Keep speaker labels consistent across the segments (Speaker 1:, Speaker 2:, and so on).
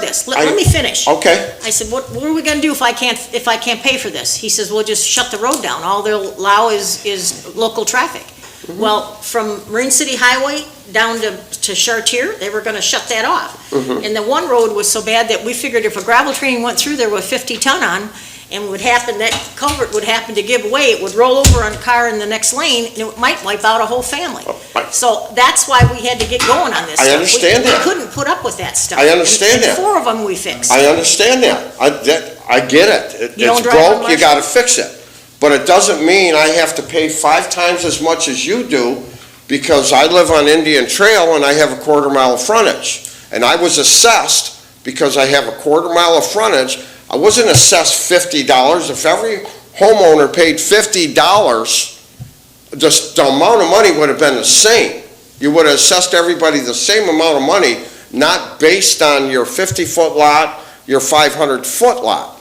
Speaker 1: this, let,
Speaker 2: I- Oh.
Speaker 1: let me finish.
Speaker 2: Okay,
Speaker 1: I said, what, what are we gonna do if I can't, if I can't pay for this? He says, well, just shut the road down, all they'll allow is, is local traffic. Well, from Marine City Highway down to, to Chartier, they were gonna shut that off. And the one road was so bad that we figured if a gravel train went through there with fifty ton on, and would happen, that culvert would happen to give way, it would roll over on a car in the next lane, and it might wipe out a whole family.
Speaker 2: I-
Speaker 1: So that's why we had to get going on this
Speaker 2: I
Speaker 1: stuff. We-
Speaker 2: understand that.
Speaker 1: We couldn't put up with that stuff.
Speaker 2: I understand
Speaker 1: And- and
Speaker 2: that.
Speaker 1: four of them we fixed.
Speaker 2: I understand that, I, that, I get it. It-
Speaker 1: You don't
Speaker 2: It's
Speaker 1: drive on
Speaker 2: broke, you
Speaker 1: Marshall?
Speaker 2: gotta fix it. But it doesn't mean I have to pay five times as much as you do, because I live on Indian Trail and I have a quarter mile of frontage. And I was assessed because I have a quarter mile of frontage, I wasn't assessed fifty dollars, if every homeowner paid fifty dollars, just the amount of money would have been the same. You would have assessed everybody the same amount of money, not based on your fifty-foot lot, your five-hundred-foot lot.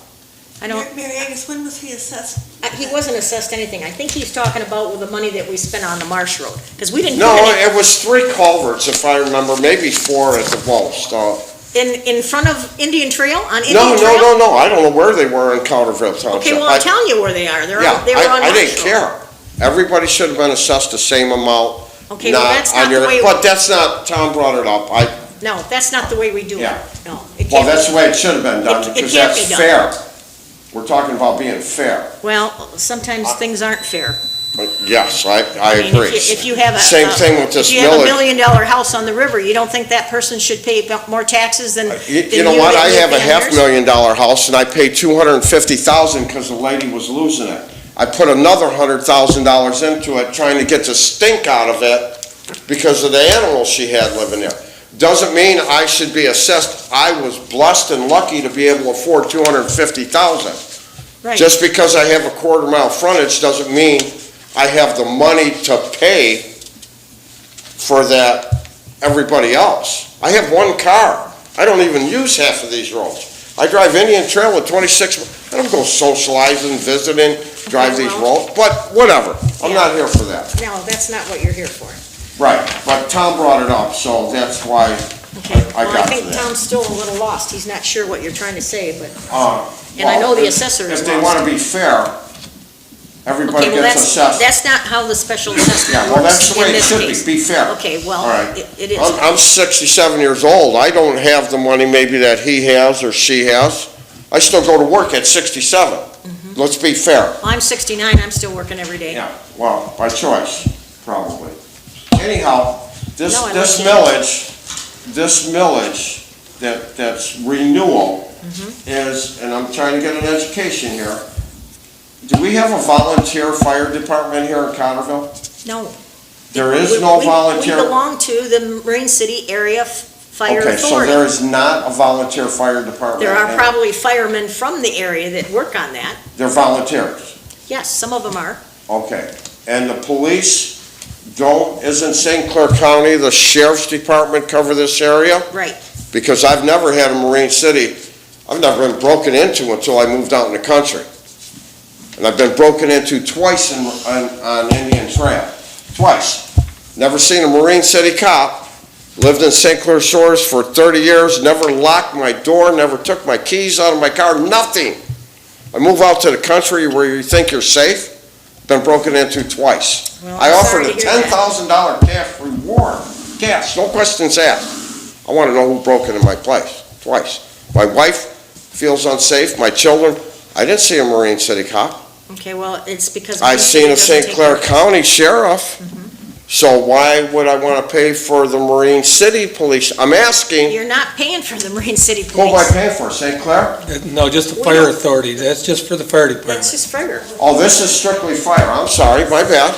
Speaker 1: I don't,
Speaker 3: Mary Agnes, when was he assessed?
Speaker 1: I- he wasn't assessed anything. I think he's talking about with the money that we spent on the Marsh Road, because we didn't. do
Speaker 2: No,
Speaker 1: any-
Speaker 2: it was three culverts, if I remember, maybe four at the most. uh,
Speaker 1: In, in front of Indian Trail, on Indian
Speaker 2: No, no,
Speaker 1: Trail?
Speaker 2: no, no, I don't know where they were in Calderville Township.
Speaker 1: Okay, well,
Speaker 2: I-
Speaker 1: I'm telling you where they are. They're
Speaker 2: Yeah,
Speaker 1: on, they were
Speaker 2: I-
Speaker 1: on
Speaker 2: I
Speaker 1: Marsh Road.
Speaker 2: didn't care. Everybody should have been assessed the same amount,
Speaker 1: Okay, well,
Speaker 2: not
Speaker 1: that's
Speaker 2: on
Speaker 1: not the
Speaker 2: your,
Speaker 1: way,
Speaker 2: but that's not, Tom brought it up. I,
Speaker 1: no, that's not the way we do it.
Speaker 2: Yeah.
Speaker 1: No, it
Speaker 2: well,
Speaker 1: can't
Speaker 2: that's
Speaker 1: be.
Speaker 2: the way it should have been
Speaker 1: It-
Speaker 2: done,
Speaker 1: it
Speaker 2: because
Speaker 1: can't
Speaker 2: that's
Speaker 1: be done.
Speaker 2: fair. We're talking about being fair.
Speaker 1: Well, sometimes things aren't fair.
Speaker 2: But Yes, I, I
Speaker 1: mean, if you-
Speaker 2: agree.
Speaker 1: If you have a.
Speaker 2: Same
Speaker 1: a-
Speaker 2: thing with this
Speaker 1: If you have a
Speaker 2: millage.
Speaker 1: million dollar house on the river, you don't think that person should pay bu- more taxes than, than
Speaker 2: You-
Speaker 1: you
Speaker 2: Uh, You know what,
Speaker 1: that
Speaker 2: I
Speaker 1: live
Speaker 2: have a
Speaker 1: down
Speaker 2: half
Speaker 1: yours?
Speaker 2: million dollar house and I paid two hundred and fifty thousand because the lady was losing it. I put another hundred thousand dollars into it, trying to get the stink out of it because of the animals she had living there. Doesn't mean I should be assessed, I was blessed and lucky to be able to afford two hundred and fifty thousand.
Speaker 1: Right.
Speaker 2: Just because I have a quarter mile frontage doesn't mean I have the money to pay for that, everybody else. I have one car. I don't even use half of these roads. I drive Indian Trail with twenty-six, I don't go socializing, visiting, drive
Speaker 1: Okay,
Speaker 2: these
Speaker 1: well-
Speaker 2: roads, but whatever. I'm
Speaker 1: Yeah.
Speaker 2: not here for that.
Speaker 1: No, that's not what you're here for.
Speaker 2: Right, but Tom brought it up, so that's why,
Speaker 1: Okay,
Speaker 2: I
Speaker 1: well, I
Speaker 2: got to
Speaker 1: think
Speaker 2: that.
Speaker 1: Tom's still a little lost, he's not sure what you're trying to say, but,
Speaker 2: uh.
Speaker 1: and I know
Speaker 2: well,
Speaker 1: the
Speaker 2: if-
Speaker 1: assessor is
Speaker 2: If they
Speaker 1: lost.
Speaker 2: wanna be fair, everybody
Speaker 1: Okay, well,
Speaker 2: gets
Speaker 1: that's,
Speaker 2: assessed.
Speaker 1: that's not how the special assessment
Speaker 2: Yeah, well, that's
Speaker 1: works
Speaker 2: the
Speaker 1: in
Speaker 2: way it
Speaker 1: this
Speaker 2: should be,
Speaker 1: case.
Speaker 2: be fair.
Speaker 1: Okay,
Speaker 2: All
Speaker 1: well,
Speaker 2: right.
Speaker 1: it it is,
Speaker 2: I'm, I'm sixty-seven years old, I don't have the money maybe that he has or she has. I still go to work at
Speaker 1: Mm-hmm.
Speaker 2: sixty-seven. Let's be fair.
Speaker 1: I'm 69, I'm still working every day.
Speaker 2: Yeah. Well, by choice, probably. Anyhow, this,
Speaker 1: No, I
Speaker 2: this
Speaker 1: like it.
Speaker 2: millage, this millage that, that's renewal
Speaker 1: Mm-hmm.
Speaker 2: is, and I'm trying to get an education here. Do we have a volunteer fire department here in Cotterville?
Speaker 1: No.
Speaker 2: There
Speaker 1: We-
Speaker 2: is no
Speaker 1: we-
Speaker 2: volunteer.
Speaker 1: We belong to the Marine City Area F- Fire
Speaker 2: Okay, so
Speaker 1: Authority.
Speaker 2: there is not a volunteer fire department?
Speaker 1: There are
Speaker 2: and
Speaker 1: probably firemen from the area that work on that,
Speaker 2: They're volunteers,
Speaker 1: yes, some of them are.
Speaker 2: okay. And the police don't, isn't St. Clair County, the sheriff's department cover this area?
Speaker 1: Right.
Speaker 2: Because I've never had a Marine City, I've never been broken into until I moved out in the country. And I've been broken into twice in, on, on Indian Trail, twice. Never seen a Marine City cop, lived in St. Clair Shores for thirty years, never locked my door, never took my keys out of my car, nothing. I move out to the country where you think you're safe, been broken into twice.
Speaker 1: Well,
Speaker 2: I
Speaker 1: Oh, I'm
Speaker 2: offered
Speaker 1: sorry
Speaker 2: a
Speaker 1: to hear
Speaker 2: ten
Speaker 1: that.
Speaker 2: thousand dollar cash reward, cash, no questions asked. I wanna know who broke into my place, twice. My wife feels unsafe, my children, I didn't see a Marine City cop.
Speaker 1: Okay, well, it's because.
Speaker 2: I
Speaker 1: Marine City
Speaker 2: seen a
Speaker 1: doesn't
Speaker 2: St.
Speaker 1: take
Speaker 2: Clair
Speaker 1: care- Mm-hmm.
Speaker 2: County sheriff, so why would I wanna pay for the Marine City Police? I'm asking,
Speaker 1: You're not paying for the Marine City
Speaker 2: who am I
Speaker 1: Police.
Speaker 2: paying for, St. Clair?
Speaker 4: No, just the fire authority, that's just for the fire
Speaker 1: That's
Speaker 4: department.
Speaker 1: just fire.
Speaker 2: Oh, this is strictly fire, I'm sorry, my bad.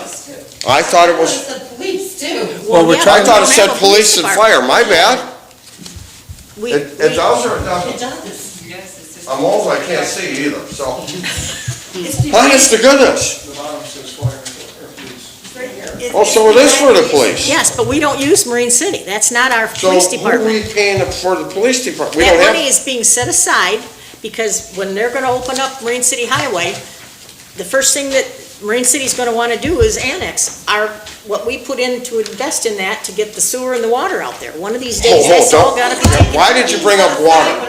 Speaker 2: I thought it was,
Speaker 5: The police do.
Speaker 4: Well, we're
Speaker 1: yeah,
Speaker 4: trying-
Speaker 2: I thought it
Speaker 1: we
Speaker 2: said
Speaker 1: have a
Speaker 2: police and
Speaker 1: department.
Speaker 2: fire, my bad.
Speaker 1: We,
Speaker 2: It, it
Speaker 1: we-
Speaker 2: does or it doesn't?
Speaker 5: It does. Yes, it's just-
Speaker 2: I'm old, I can't see either, so.
Speaker 1: Hmm.
Speaker 5: It's the-
Speaker 2: Honest to goodness,
Speaker 6: The bottom says fire or police.
Speaker 2: oh, so it is for the police.
Speaker 1: yes, but we don't use Marine City. That's not our
Speaker 2: So
Speaker 1: police
Speaker 2: who are
Speaker 1: department.
Speaker 2: we paying for the police department? We
Speaker 1: That
Speaker 2: don't have.
Speaker 1: money is being set aside because when they're gonna open up Marine City Highway, the first thing that Marine City's gonna wanna do is annex our, what we put in to invest in that to get the sewer and the water out there. One of these days,
Speaker 2: Hold, hold,
Speaker 1: that's all
Speaker 2: don't-
Speaker 1: gotta be taken.
Speaker 2: Why did you bring up water?